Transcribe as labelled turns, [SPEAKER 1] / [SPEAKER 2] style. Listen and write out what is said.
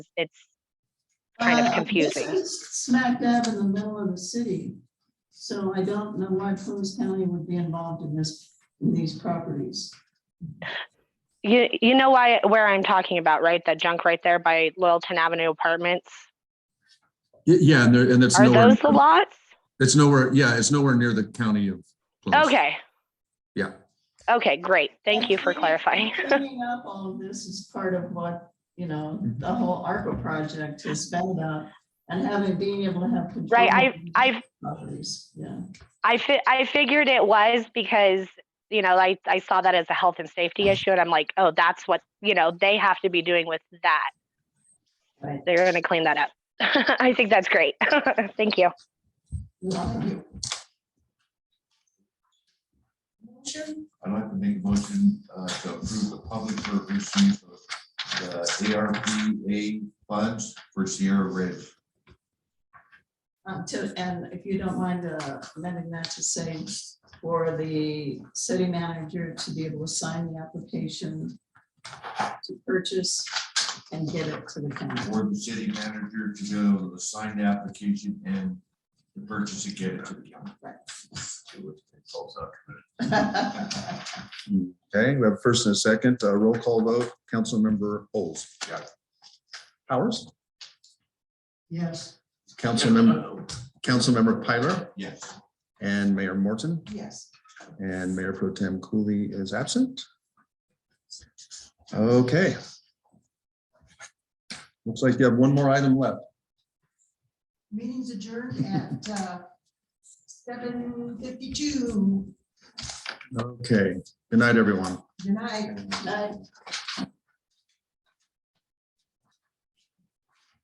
[SPEAKER 1] it's kind of
[SPEAKER 2] Uh, this
[SPEAKER 1] confusing.
[SPEAKER 2] is Smack dab in the middle of the city. So I don't know why Plumas County would be involved in this, in these properties.
[SPEAKER 1] You, you know why, where I'm talking about, right? That junk right there by Loyalton Avenue Apartments?
[SPEAKER 3] Y- Yeah, and there, and that's
[SPEAKER 1] Are
[SPEAKER 3] nowhere,
[SPEAKER 1] those the lots?
[SPEAKER 3] it's nowhere, yeah, it's nowhere near the county of. Plymouth.
[SPEAKER 1] Okay,
[SPEAKER 3] Yeah,
[SPEAKER 1] okay, great. Thank you for clarifying.
[SPEAKER 2] Cleaning up all of this is part of what, you know, the whole ARPA project has been about and having, being able to have. control
[SPEAKER 1] Right, I-
[SPEAKER 2] over these
[SPEAKER 1] I've-
[SPEAKER 2] Properties, yeah.
[SPEAKER 1] I fi- I figured it was because, you know, I, I saw that as a health and safety issue and I'm like, oh, that's what, you know, they have to be doing with that.
[SPEAKER 2] Right.
[SPEAKER 1] They're gonna clean that up. I think that's great. Thank you.
[SPEAKER 2] Motion?
[SPEAKER 4] I'd like to make a motion uh, to approve the public purpose use of the ARPA funds for Sierra Ridge.
[SPEAKER 2] Um, to, and if you don't mind uh, amending that to say for the city manager to be able to sign the application to purchase and get it to the county.
[SPEAKER 4] For the city manager to go to the signed application and the purchase and get it to the county.
[SPEAKER 5] Okay, we have a first and a second, uh, roll call vote, Councilmember Bowles. Powers,
[SPEAKER 2] Yes.
[SPEAKER 5] Councilmember, Councilmember Piler,
[SPEAKER 4] Yes.
[SPEAKER 5] and Mayor Morton,
[SPEAKER 2] Yes.
[SPEAKER 5] and Mayor Pro Tem Cooley is absent. Okay. Looks like you have one more item left.
[SPEAKER 2] Meeting's adjourned at uh, seven fifty-two.
[SPEAKER 5] Okay, good night, everyone.
[SPEAKER 2] Good night. Night.